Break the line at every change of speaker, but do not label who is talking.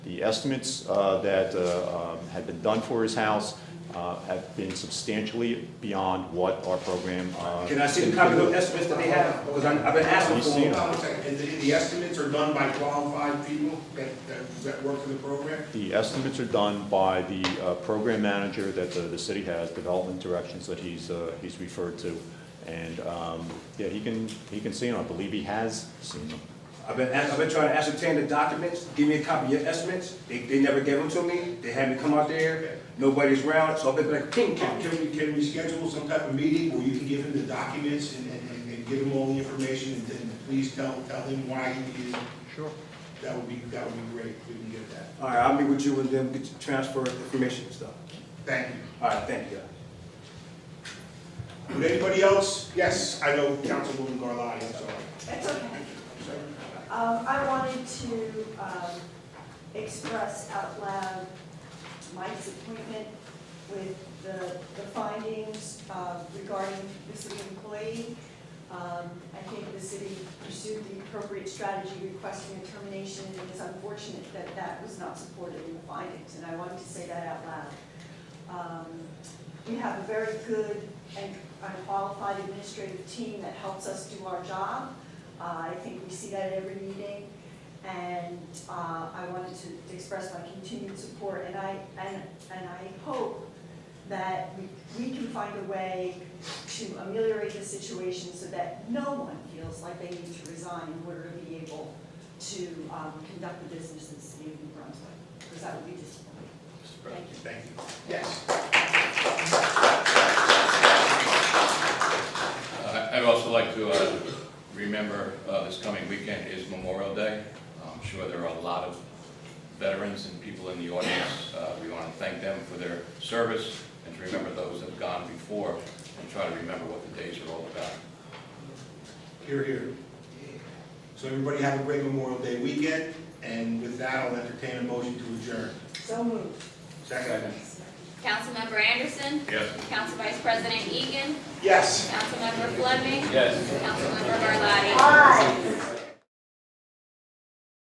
The estimates uh, that uh, um, had been done for his house uh, have been substantially beyond what our program. uh,
Can I see the copy of the estimates that they have? Because I'm- I've been asking
You
for
see
them.
them?
One second, and the, the estimates are done by qualified people that, that, that work for the program?
The estimates are done by the uh, program manager that the, the city has, development directions that he's, uh, he's referred to. And, um, yeah, he can, he can see them, I believe he has seen them.
I've been, ask- I've been trying to ascertain the documents, give me a copy of your estimates, they, they never gave them to me, they had me come out there, nobody's around, so I've been like ping
Can
pong.
can we, can we schedule some type of meeting where you can give him the documents and, and, and- and give him all the information and then please tell, tell him why he is? Sure. That would be, that would be great, if we can get that.
All right, I'll meet with you and then get you transfer information and stuff.
Thank you.
All right, thank you.
Would anybody else? Yes, I know Councilwoman Garlotti, I'm sorry.
It's okay. Um, I wanted to, um, express out loud my disappointment with the, the findings, uh, regarding the city employee. Um, I think the city pursued the appropriate strategy requesting a termination, and it's unfortunate that that was not supported in the findings, and I wanted to say that out loud. Um, we have a very good and and qualified administrative team that helps us do our job. Uh, I think we see that at every meeting. And uh, I wanted to express my continued support, and I, and, and I hope that we- we can find a way to ameliorate the situation so that no one feels like they need to resign in order to be able to um, conduct the business in the city of New Brunswick, because that would be disappointing. Thank you.
Thank you. Yes.
Uh, I'd also like to uh, remember uh, this coming weekend is Memorial Day. I'm sure there are a lot of veterans and people in the audience. Uh, We want to thank them for their service and to remember those that have gone before and try to remember what the days are all about.
Here, here. So everybody have a great Memorial Day weekend, and with that, I'll entertain a motion to adjourn.
So moved.
Second.
Councilmember Anderson.
Yes.
Council Vice President Egan.
Yes.
Councilmember Fleming.
Yes.
Councilmember Garlotti.
Aye.